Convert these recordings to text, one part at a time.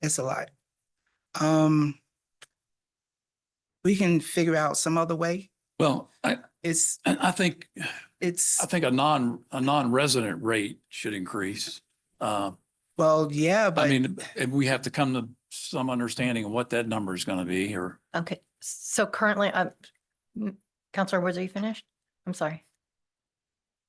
It's a lot. Um, we can figure out some other way. Well, I, It's, and I think, it's, I think a non, a non-resident rate should increase. Uh, well, yeah, I but mean, if we have to come to some understanding of what that number is going to be or, Okay, so currently, uh, m- Counselor Woods, are you finished? I'm sorry.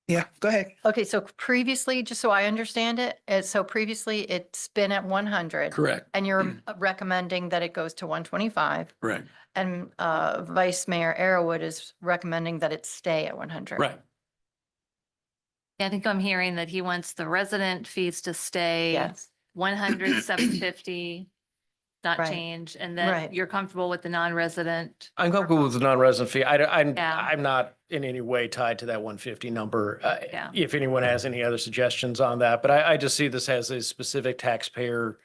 yeah, go ahead. Okay, so previously, just so I understand it, uh, so previously it's been at one hundred. correct, And you're recommending that it goes to one twenty-five correct, and uh, Vice Mayor Arrowood is recommending that it stay at one hundred. right. I think I'm hearing that he wants the resident fees to stay Yes, one hundred, seven fifty, not Right. change, and Right. that you're comfortable with the non-resident. I'm comfortable with the non-resident fee. I, am Yeah. I'm not in any way tied to that one fifty number. Uh, Yeah. If anyone has any other suggestions on that, but I, I just see this as a specific taxpayer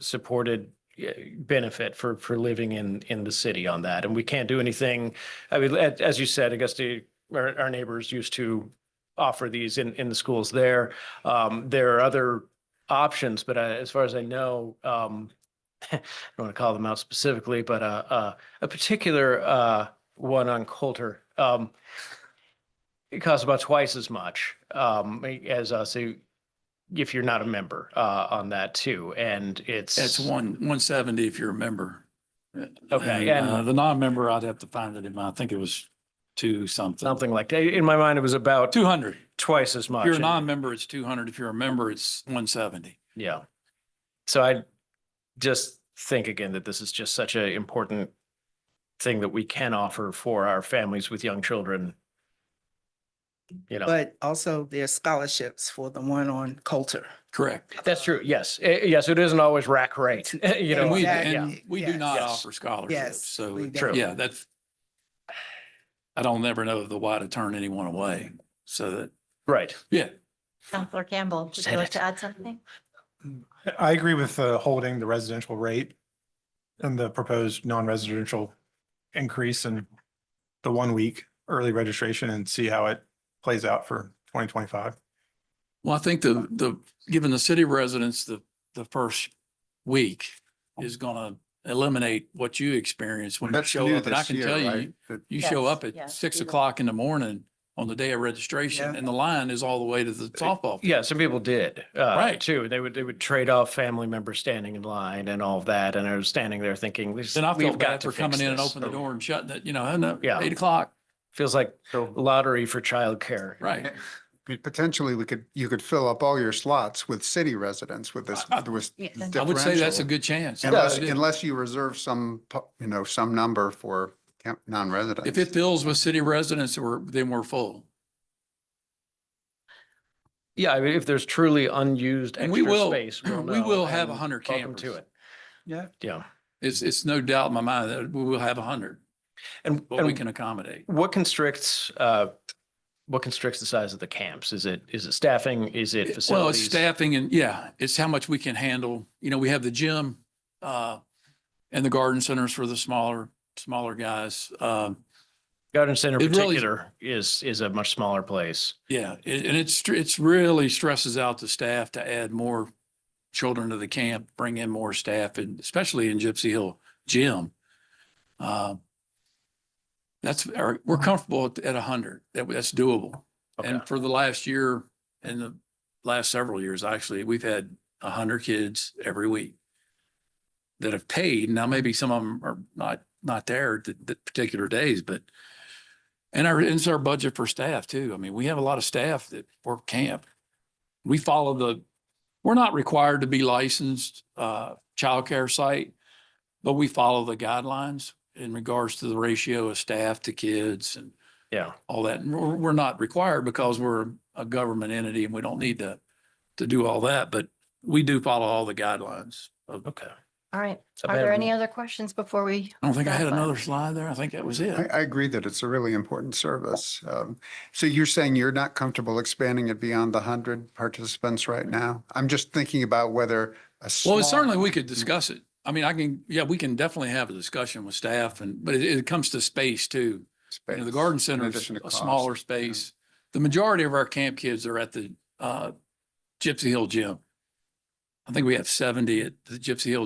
supported uh, benefit for, for living in, in the city on that. And we can't do anything. I mean, a- as you said, Augusta, our, our neighbors used to offer these in, in the schools there. Um, there are other options, but uh, as far as I know, um, I don't want to call them out specifically, but, uh, uh, a particular uh, one on Coulter. Um, it costs about twice as much um, as us i- if you're not a member uh, on that too, and it's That's one, one seventy if you're a member. Okay, And, uh, and- the non-member, I'd have to find it in my, I think it was two something. something like that. In my mind, it was about Two hundred. twice as much. If you're a and- non-member, it's two hundred. If you're a member, it's one seventy. Yeah. So I just think again that this is just such an important thing that we can offer for our families with young children. You know. But also there's scholarships for the one on Coulter. Correct. That's true. Yes. Eh, Yes. It isn't always rack rate, you know. And we, Exactly. and we do Yes. not Yes. offer scholarships, Yes, so, we True. yeah, that's. I don't never know the why to turn anyone away, so that, Right. yeah, Counselor Campbell, would Said you like it. to add something? I agree with uh, holding the residential rate and the proposed non-residential increase in the one week early registration and see how it plays out for twenty twenty-five. well, I think the, the, giving the city residents the, the first week is gonna eliminate what you experience when you That's show new up, and I this can year, tell you, right? That- you show Yes, up at yes, six we will. o'clock in the morning on the day of registration, Yeah. and the line is all the way to the softball. field. Yeah. Some people did. uh, Right. Too. They would, they would trade off family members standing in line and all of that. And I was standing there thinking, this, Then I we've felt got bad to for fix coming in and this. opening the door and shutting it, you know, and, uh, Yeah. eight o'clock, Feels like lottery for childcare. right. I mean, Potentially, we could, you could fill up all your slots with city residents with this, I- I- with Yeah. this I would say that's a differential. good chance. I Unless, really do. unless you reserve some, pu- you know, some number for camp- non-residents. If it fills with city residents, we're, then we're full. Yeah, I mean, if there's truly unused And we extra will- space. we'll we know, will have and 100 welcome to campers. it. Yeah. Yeah. It's, it's no doubt in my mind that we will have a hundred, And but we and can accommodate. What constricts, uh, what constricts the size of the camps? Is it, is it staffing? Is it It- Well, it's facilities? staffing and yeah, it's how much we can handle. You know, we have the gym, uh, and the garden centers for the smaller, smaller guys. Um, Garden Center in It really- particular is, is a much smaller place. yeah, it- and it's, it's really stresses out the staff to add more children to the camp, bring in more staff and especially in Gypsy Hill Gym. Um, That's, our- we're comfortable at a hundred. That, that's doable. Okay. And for the last year and the last several years, actually, we've had a hundred kids every week that have paid. Now, maybe some of them are not, not there the, the particular days, but and our, and it's our budget for staff too. I mean, we have a lot of staff that work camp. We follow the, we're not required to be licensed, uh, childcare site, but we follow the guidelines in regards to the ratio of staff to kids and Yeah. all that. And we're, we're not required because we're a government entity and we don't need to, to do all that, but we do follow all the guidelines. of- Okay. All right, So are there Madam- any other questions before we? I don't think I had That's fine. another slide there. I think that was I, it. I agree that it's a really important service. Um, So you're saying you're not comfortable expanding it beyond the hundred participants right now? I'm just thinking about whether a Well, small. it's certainly we could discuss it. I mean, I can, yeah, we can definitely have a discussion with staff and, but it, it comes to space too. You know, the space, garden in center is addition to a cost. smaller space. The majority of our camp kids are at the, uh, Gypsy Hill Gym. I think we have seventy at the Gypsy Hill